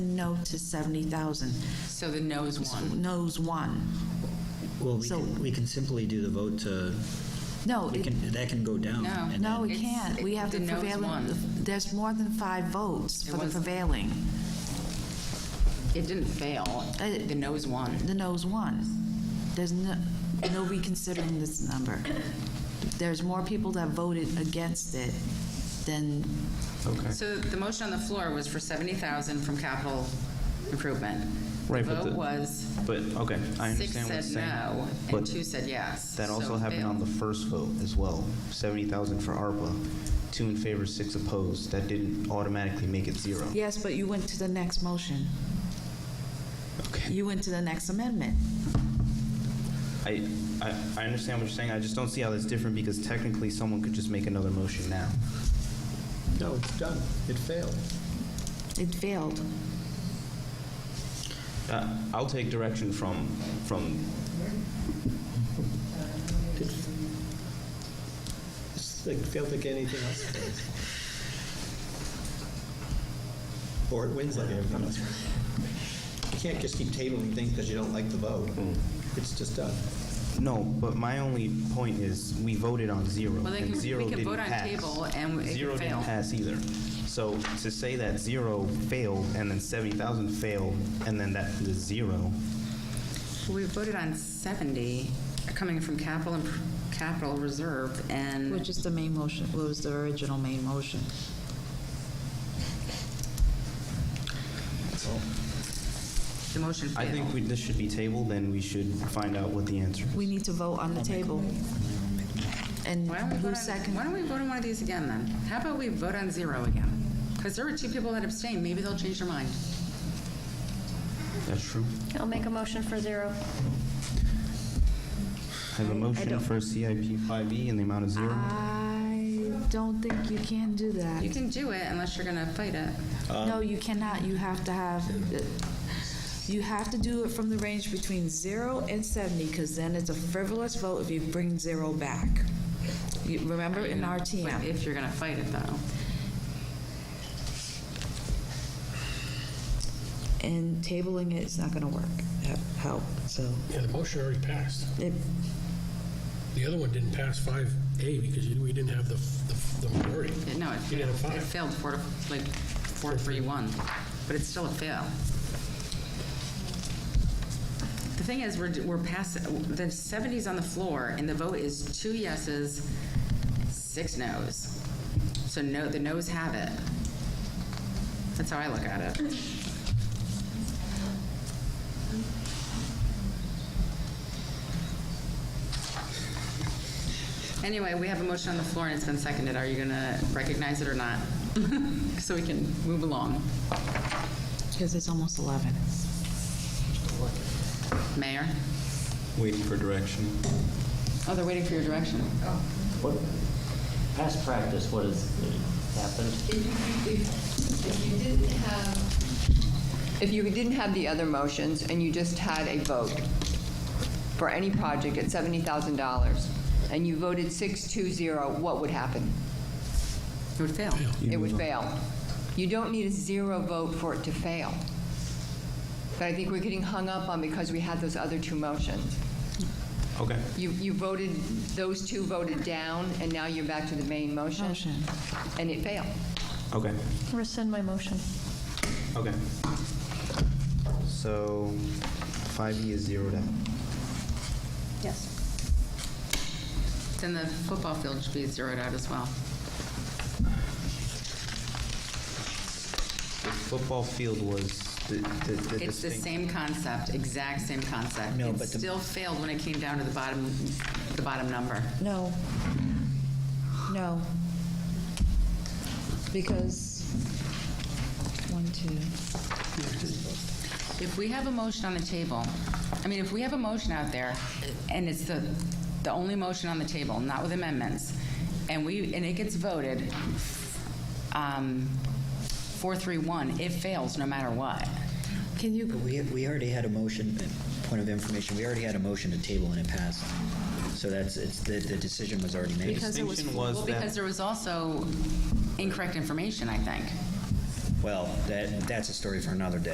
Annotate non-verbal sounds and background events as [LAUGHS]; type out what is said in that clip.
No to 70,000. So the no's won. No's one. Well, we So- can, we can simply do the vote to, No, we it- can, that can go down. No. and no, then- we It's- can't. We it- have the the no's prevailing, won. there's more than five votes It for the was- prevailing. It didn't fail. Uh, The no's won. The no's won. There's no, no reconsidering this number. There's more people that voted against it than, Okay. So the motion on the floor was for 70,000 from capital improvement. The Right, but vote the- was, But, okay, I six understand what you're said saying. no, and but two said yes. That So also it happened on the failed. first vote as well. 70,000 for ARPA, two in favor, six opposed. That didn't automatically make it zero. yes, but you went to the next motion. Okay. You went to the next amendment. I, I, I understand what you're saying. I just don't see how that's different because technically someone could just make another motion now. No, it's done. It failed. It failed. Uh, I'll take direction from, from, It's like, failed like anything else. [LAUGHS] Or it wins like everything else. You can't just keep tabling things because you don't like the vote. It's just done. no, but my only point is we voted on zero Well, they and can- we zero can didn't vote on pass. table and it can Zero fail. didn't pass either. So to say that zero failed and then 70,000 failed and then that the zero, We voted on 70 coming from capital, imp- capital reserve and, Which is the main motion, what was the original main motion? the motion I think failed. we, this should be tabled, and we should find out what the answer is. We need to vote on the table. And Why don't we vote who on- seconded? Why don't we vote on one of these again then? How about we vote on zero again? Because there were two people that abstained. Maybe they'll change their mind. That's true. I'll make a motion for zero. I Uh, have a motion for CIP 5E E in the amount of zero. I don't think you can do that. You can do it unless you're going to fight it. No, you cannot. You have to have, you have to do it from the range between zero and 70, because then it's a frivolous vote if you bring zero back. You Remember in But RTM? If you're going to fight it though. And tabling it is not going to work, have help, so. Yeah, the motion already passed. it- The other one didn't pass 5A because you- we didn't have the the the majority. Yeah, No, it You got a failed. five. It failed four, to like, four, three, one, but it's still a fail. The thing is, we're, we're past, the 70's on the floor, and the vote is two yeses, six noes. So no, the noes have it. That's how I look at it. Anyway, we have a motion on the floor, and it's been seconded. Are you going to recognize it or not? [LAUGHS] So we can move along. Because it's almost 11. Mayor? Waiting for direction. Oh, they're waiting for your direction. What, past practice, what has happened? If you, if, if you didn't have, if you didn't have the other motions and you just had a vote for any project at $70,000 and you voted 620, what would happen? It would fail. It would fail. You don't need a zero vote for it to fail. But I think we're getting hung up on because we had those other two motions. Okay. You, you voted, those two voted down, and now you're back to the main motion. Motion. And it failed. Okay. Rescind my motion. Okay. So 5E is zeroed out. Yes. Then the football field should be zeroed out as well. The football field was the, the, the It's the distinct- same concept, exact same concept. No, It but the- still failed when it came down to the bottom, the bottom number. No. No. Because, one, two. If we have a motion on the table, I mean, if we have a motion out there, and it's the, the only motion on the table, not with amendments, and we, and it gets voted, um, four, three, one, it fails no matter what. Can you, We, we already had a motion, uh, point of information, we already had a motion to table and it passed. So that's, it's, the, the decision was already made. because it was, Distinction was Well, that- because there was also incorrect information, I think. Well, that, that's a story for another day.